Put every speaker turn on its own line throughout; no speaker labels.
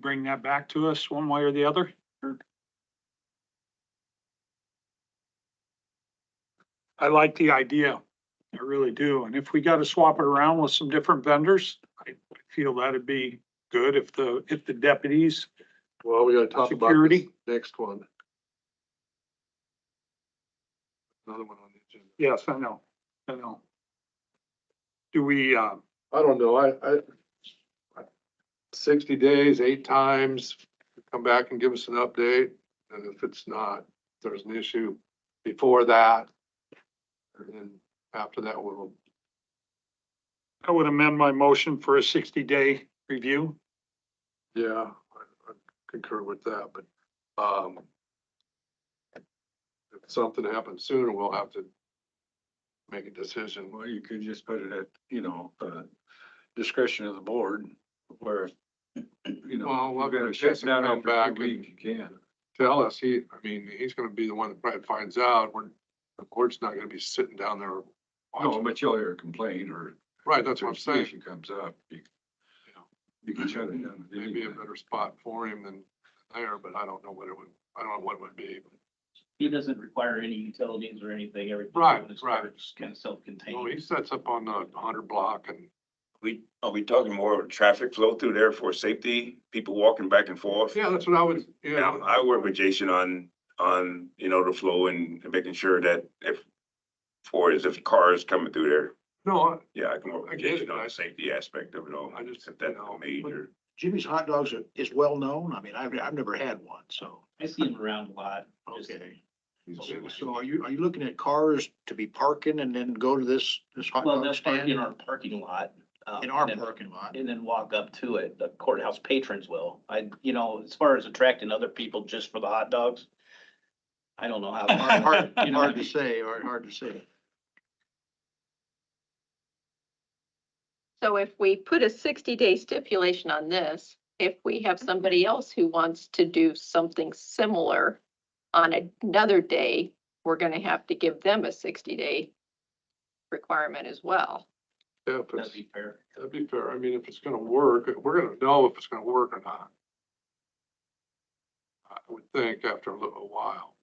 bring that back to us one way or the other? I like the idea. I really do. And if we got to swap it around with some different vendors, I feel that'd be good if the, if the deputies
Well, we gotta talk about this
Security.
next one. Another one on the agenda.
Yes, I know, I know. Do we, uh,
I don't know, I, I, sixty days, eight times, come back and give us an update, and if it's not, if there's an issue before that. And then after that, we'll,
I would amend my motion for a sixty day review.
yeah, I I concur with that, but, um, if something happens sooner, we'll have to make a decision.
Well, you could just put it at, you know, uh, discretion of the board where, you know.
Well, we'll
you gotta
have
shut
Jason
down
come
after a
back
few
and-
weeks, You can.
tell us, he, I mean, he's gonna be the one that probably finds out, we're, the court's not gonna be sitting down there.
No,
Oh,
watching.
but you'll hear a complaint or.
Right, that's what I'm
if
saying,
Issue comes up, you,
Yeah.
you can shut it down. at any
maybe a
time.
better spot for him than there, but I don't know what it would, I don't know what it would be.
He doesn't require any utilities or anything, everything.
Right,
is
right.
Just kind of self-contained.
Well, he sets up on the hundred block and,
We, are we talking more traffic flow through there for safety, people walking back and forth?
yeah, that's what I would,
And I'm-
yeah,
I work with Jason on, on, you know, the flow and and making sure that if, for is if cars coming through there,
no,
yeah, I can work
I
with
get it,
Jason on
I-
the safety aspect of it all.
I just-
If that's
no,
a
but-
major,
Jimmy's Hot Dogs are- is well-known. I mean, I've, I've never had one, so.
I see him around a lot. just-
Okay.
he's-
So are you, are you looking at cars to be parking and then go to this, this hot
Well,
dog
that's parked
stand?
in our parking lot. um,
In our
and-
parking lot?
And then walk up to it, the courthouse patrons will. I, you know, as far as attracting other people just for the hot dogs, I don't know how.
Hard, hard-
you know,
hard to say, hard, hard to say.
So if we put a sixty day stipulation on this, if we have somebody else who wants to do something similar on another day, we're gonna have to give them a sixty day requirement as well.
yeah, if
That'd
it's,
be fair.
that'd be fair, I mean, if it's gonna work, we're gonna know if it's gonna work or not. I would think after a little while.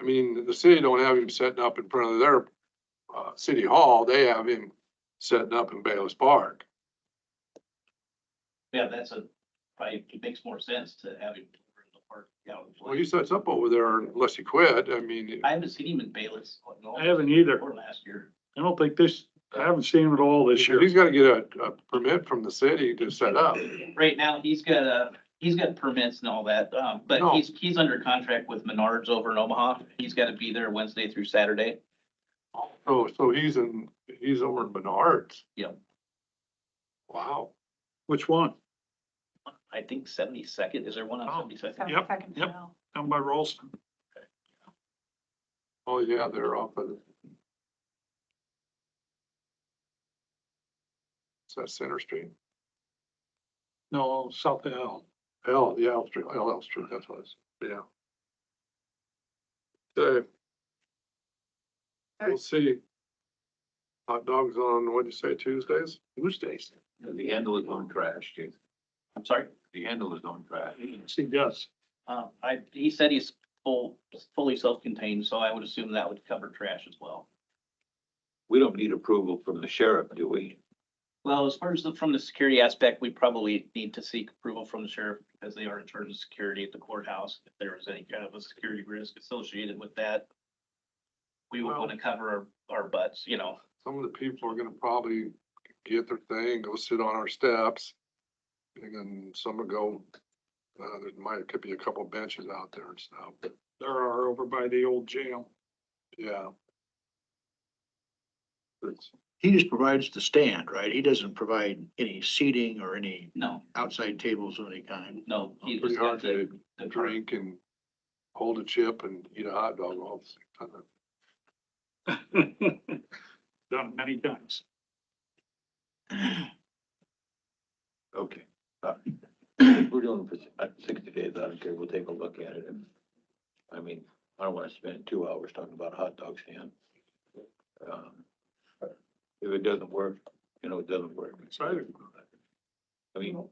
I mean, the city don't have him setting up in front of their, uh, city hall, they have him setting up in Bayless Park.
Yeah, that's a, probably it makes more sense to have him in the park. yeah, with-
Well, he sets up over there unless he quit, I mean,
I haven't seen him in Bayless. like, no,
I haven't either.
Or last year.
I don't think this, I haven't seen it all this year.
he's gotta get a, a permit from the city to set up.
Right now, he's got a, he's got permits and all that, um, but
No.
he's, he's under contract with Menards over in Omaha. He's gotta be there Wednesday through Saturday.
Oh, so he's in, he's over in Menards.
Yep.
Wow,
Which one?
I think seventy-second, is there one
Oh,
on seventy-second?
Yep, yep. Down by Rolston.
oh yeah, they're off of. Is that Center Street?
No, South Hill.
L, yeah, L Street, L, L Street, that's what it's, yeah. Okay. We'll see. Hot dogs on, what'd you say, Tuesdays? Tuesdays.
The handle is on trash, Jason.
I'm sorry,
The handle is on trash.
Yes, he does.
um, I, he said he's full, fully self-contained, so I would assume that would cover trash as well.
We don't need approval from the sheriff, do we?
Well, as far as the, from the security aspect, we probably need to seek approval from the sheriff because they are in charge of security at the courthouse. If there was any kind of a security risk associated with that, we would
Well-
want to cover our, our butts, you know.
some of the people are gonna probably get their thing, go sit on our steps. And then some will go, uh, there might, could be a couple benches out there and stuff, but
There are over by the old jail.
yeah. It's-
He just provides the stand, right? He doesn't provide any seating or any
No,
outside tables of any kind.
no. he
Pretty
just got
hard
the-
to
the part.
drink and hold a chip and eat a hot dog all at the same time.
Done many times.
Okay. Uh, We're doing it for uh, sixty days, I don't care, we'll take a look at it. I mean, I don't wanna spend two hours talking about a hot dog stand. Um, If it doesn't work, you know, it doesn't work.
Exciting.
I mean,